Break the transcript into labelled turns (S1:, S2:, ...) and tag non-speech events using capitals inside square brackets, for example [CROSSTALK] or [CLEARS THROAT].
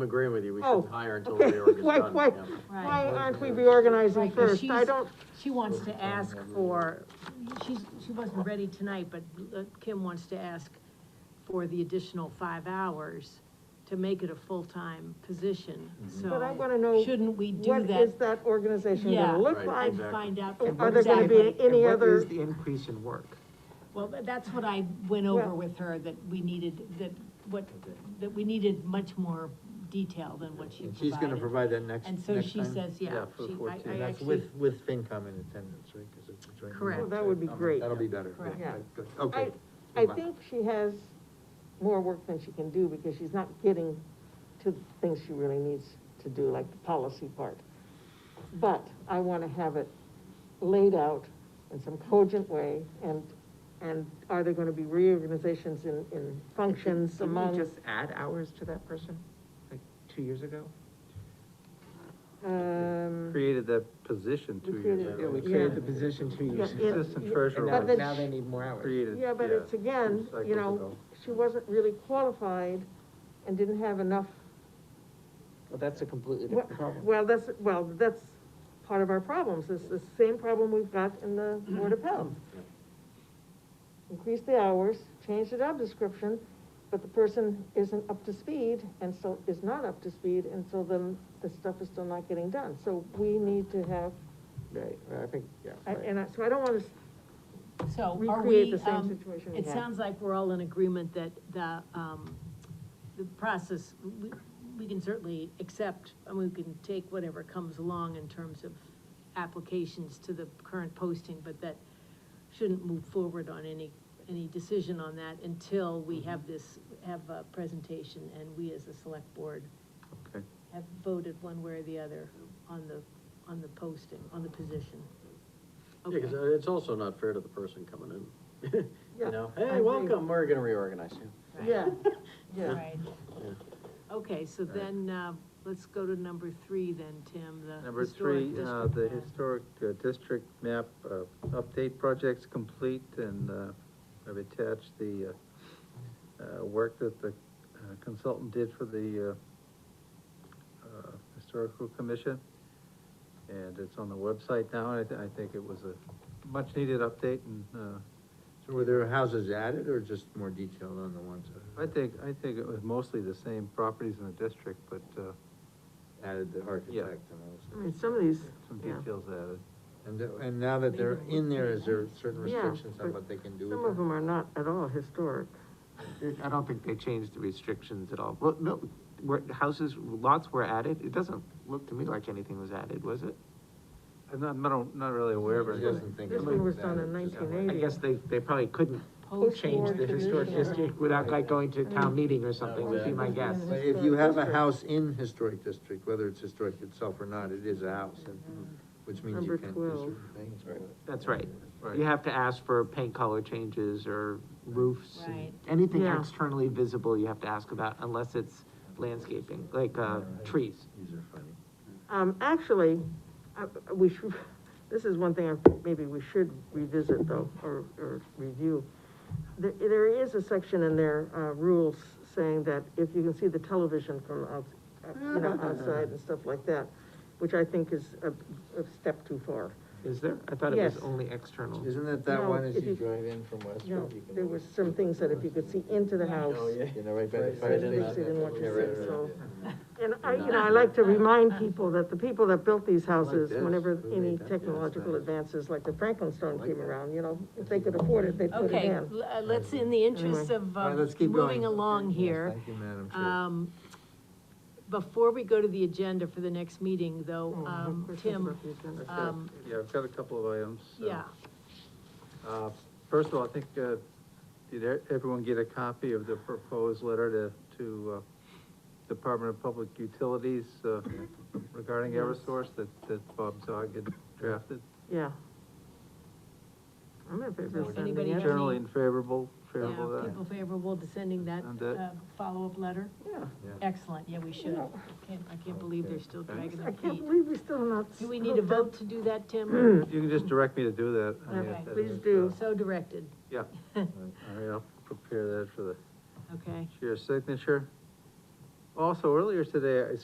S1: I'm agreeing with you, we
S2: Oh,
S1: shouldn't hire until the
S2: okay,
S1: reorg is
S2: [LAUGHS] why-
S1: done.
S2: why-
S1: yeah.
S2: Why
S3: Right.
S2: aren't we reorganizing
S3: Right, 'cause
S2: first? I
S3: she's-
S2: don't,
S3: She wants to ask for, she's, she wasn't ready tonight, but uh, Kim wants to ask for the additional five hours to make it a full-time position,
S4: Mm-hmm.
S3: so.
S2: But I wanna know
S3: Shouldn't we do
S2: what
S3: that?
S2: is that organization
S3: Yeah.
S2: gonna look
S1: Right.
S2: like?
S3: And find out.
S2: And Are there gonna be
S3: exactly.
S2: any
S5: And what
S2: other,
S5: is the increase in work?
S3: Well, tha- that's what I went over
S2: Well-
S3: with her, that we needed, that, what, that we needed much more detail than what she
S4: And
S3: provided.
S4: she's gonna provide that next,
S3: And
S4: next
S3: so
S4: time?
S3: she says, yeah,
S1: for
S3: she,
S1: 14.
S3: I, I
S4: And that's
S3: actually,
S4: with, with FinCom in attendance, right? 'Cause it's a joint meeting,
S3: Correct.
S2: Well, Oh, that would be
S6: Um,
S4: so
S2: great.
S4: That'll be better.
S3: Correct.
S4: Yeah,
S2: Yeah.
S4: good, Okay.
S2: I, I
S4: Move on.
S2: think she has more work than she can do, because she's not getting to the things she really needs to do, like the policy part. But I wanna have it laid out in some cogent way, and, and are there gonna be reorganizations in, in functions
S5: Didn't we
S2: among?
S5: just add hours to that person, like, two years ago?
S2: Um,
S4: Created the position
S2: two We years created-
S5: Yeah, we
S2: Yeah.
S5: created the position two years
S2: Yeah,
S5: ago.
S2: it-
S4: Assistant
S5: And
S4: treasurer.
S5: now,
S2: But the-
S5: now they need more hours.
S4: Created.
S2: yeah, but it's again,
S4: two cycles
S2: you know,
S4: ago.
S2: she wasn't really qualified and didn't have enough,
S5: Well, that's a completely
S2: well,
S5: different problem.
S2: well, that's, well, that's part of our problems, it's the same problem we've got in the Board of Health. Increase the hours, change the job description, but the person isn't up to speed, and so, is not up to speed, and so then the stuff is still not getting done, so we need to have,
S5: Right, well, I think, yeah.
S2: I-
S5: right.
S2: and I, so I don't wanna
S3: so are
S2: recreate
S3: we,
S2: the same
S3: um,
S2: situation we
S3: it
S2: had.
S3: sounds like we're all in agreement that the, um, the process, we, we can certainly accept, and we can take whatever comes along in terms of applications to the current posting, but that shouldn't move forward on any, any decision on that until we have this, have a presentation, and we as a select board
S4: Okay.
S3: have voted one way or the other on the, on the posting, on the position.
S1: Yeah,
S3: Okay.
S1: because it's also not fair to the person
S6: [LAUGHS]
S1: coming in.
S2: Yeah,
S1: You know,
S2: I
S1: hey,
S2: agree.
S1: welcome, we're gonna reorganize you.
S3: Right.
S2: Yeah, [LAUGHS] yeah.
S3: Right. Okay, so then, uh, let's go to number three then, Tim, the.
S4: Number
S3: historic
S4: three, uh,
S3: district
S4: the
S3: plan.
S4: historic uh, district map, uh, update projects complete, and, uh, I've attached the, uh, uh, work that the uh, consultant did for the, uh, uh, historical commission. And it's on the website now, and I, thi- I think it was a much-needed update, and, uh,
S6: So were there houses added or just more detailed on the ones that
S4: I think, I think it was mostly the same properties in the district, but, uh,
S6: added the
S4: Yeah.
S6: architect and all
S5: I
S2: Mm.
S5: mean, some of these,
S4: some
S5: yeah.
S4: details added.
S6: this? And, th- and now that they're in there, is there certain
S2: Yeah,
S6: restrictions on
S2: but
S6: what they can do?
S2: Some
S6: with
S2: of
S6: that?
S2: them are not at all historic.
S5: I don't think they changed the restrictions at all. Well, no, were, houses, lots were added, it doesn't look to me like anything was added, was it?
S4: I'm not, not, not really aware of
S6: She
S4: it.
S6: doesn't think.
S2: This
S6: it
S2: one
S6: was
S2: was done in
S6: added, just-
S2: 1980.
S5: I guess they, they probably couldn't change the historic district without like going to
S2: Mm.
S5: town meeting or something, would be my guess.
S6: But if you have a house in historic district, whether it's historic itself or not, it is a house, and, which means
S2: Number
S6: you can't do
S2: 12.
S6: certain things. with it.
S5: That's right.
S4: Right.
S5: You have to ask for paint color changes or roofs. and
S3: Right.
S5: Anything
S2: Yeah.
S5: externally visible you have to ask about unless it's landscaping, like, uh, trees.
S6: These are funny.
S2: Um, actually, uh, we should, [LAUGHS] this is one thing I, maybe we should revisit though, or, or review. There, there is a section in their, uh, rules saying that if you can see the television from out, uh, you know, outside and stuff like that, which I think is a, a step too far.
S5: Is there? I thought it was
S2: Yes.
S5: only external.
S6: Isn't that
S2: No,
S6: that one as
S2: if
S6: you
S2: you-
S6: drive in from
S2: No,
S6: Westfield? you can
S2: there
S6: look
S2: was
S6: at
S2: some
S6: the-
S2: things that if you could see into the house,
S6: You know, right by the
S1: Right,
S6: fire
S1: right in
S6: station.
S1: that- They didn't
S2: want you
S6: Yeah,
S2: to
S6: right,
S2: see it,
S6: right,
S2: so-
S6: yeah.
S2: And I, you know, I like to remind people that the people that built these houses,
S6: this.
S2: whenever
S6: Who
S2: any
S6: made that? Yeah, it's
S2: technological
S6: nice.
S2: advances like the Franklin stone
S6: like
S2: came
S6: that.
S2: around, you know, if they could afford it, they'd put it
S3: Okay,
S2: in.
S3: l- uh, let's, in the interest
S2: Anyway.
S3: of,
S6: All right,
S3: um,
S6: let's keep going.
S3: moving along
S6: Yes,
S3: here,
S6: Thank you, Madam Chair.
S3: um, before we go to the agenda for the next meeting though,
S2: Oh, I have
S3: um,
S2: questions
S3: Tim,
S2: about the agenda.
S4: Okay.
S3: Um,
S4: Yeah, I've got a couple of items. so,
S3: yeah,
S4: uh, First of all, I think, uh, did e- everyone get a copy of the proposed letter to, to, uh, Department of Public Utilities, uh, regarding Eversource that, that Bob Zog had drafted?
S2: Yeah. I'm in favor of
S3: Does
S2: sending
S3: anybody
S2: it.
S3: have any-
S4: Generally in favorable,
S3: yeah,
S4: favorable of that.
S3: people favorable to sending that,
S4: And that-
S3: uh, follow-up letter?
S2: Yeah.
S3: Excellent, yeah, we should.
S2: know.
S3: Can't, I can't believe they're still dragging
S2: I
S3: their
S2: can't
S3: feet.
S2: believe we're still not.
S3: Do we need
S2: [LAUGHS]
S3: a
S2: hooked up.
S3: vote to do
S2: [CLEARS THROAT]
S3: that, Tim?
S4: You can just direct me to do that. I mean, if
S3: Okay.
S4: that
S2: Please
S4: is, uh,
S2: do.
S3: So directed,
S4: Yeah. All right, I'll prepare that for the
S3: okay?
S4: chair's signature. Also, earlier today, I